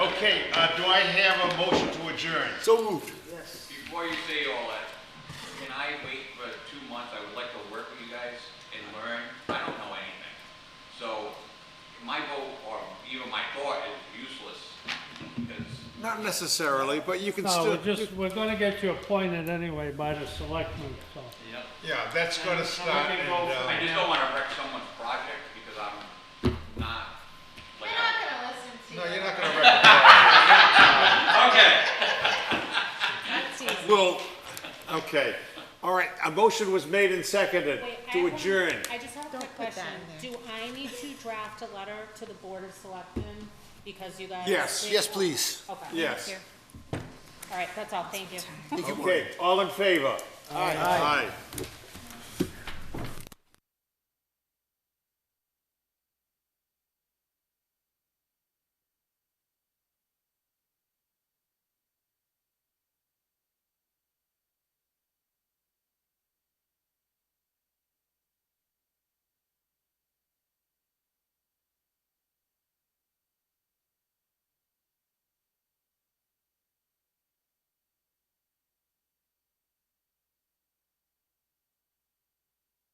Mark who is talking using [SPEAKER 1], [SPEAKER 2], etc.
[SPEAKER 1] Okay, uh, do I have a motion to adjourn?
[SPEAKER 2] So moved.
[SPEAKER 3] Before you say all that, can I wait for two months? I would like to work with you guys and learn. I don't know anything. So my vote or even my thought is useless because
[SPEAKER 2] Not necessarily, but you can
[SPEAKER 4] No,
[SPEAKER 2] still.
[SPEAKER 4] we're just, we're gonna get you appointed anyway by the selectmen, so.
[SPEAKER 1] Yeah, that's gonna start,
[SPEAKER 4] can
[SPEAKER 1] and,
[SPEAKER 4] go
[SPEAKER 1] uh,
[SPEAKER 4] from-
[SPEAKER 3] I just don't want to wreck someone's project because I'm not,
[SPEAKER 5] We're
[SPEAKER 3] like,
[SPEAKER 5] not gonna listen to
[SPEAKER 1] no,
[SPEAKER 5] you.
[SPEAKER 1] you're not gonna recommend.
[SPEAKER 3] okay.
[SPEAKER 5] That's easy.
[SPEAKER 2] Well, okay. All right, a motion was made and seconded
[SPEAKER 6] Wait, I
[SPEAKER 2] to
[SPEAKER 6] have-
[SPEAKER 2] adjourn.
[SPEAKER 6] I just have a quick
[SPEAKER 5] put
[SPEAKER 6] question.
[SPEAKER 5] that
[SPEAKER 6] Do I need to draft a letter to the Board of Selectmen because you guys?
[SPEAKER 2] Yes.
[SPEAKER 6] did-
[SPEAKER 2] Yes,
[SPEAKER 7] please.
[SPEAKER 6] Okay.
[SPEAKER 2] Yes.
[SPEAKER 6] All right, that's all. Thank you.
[SPEAKER 2] Okay, all in favor? Aye. Aye.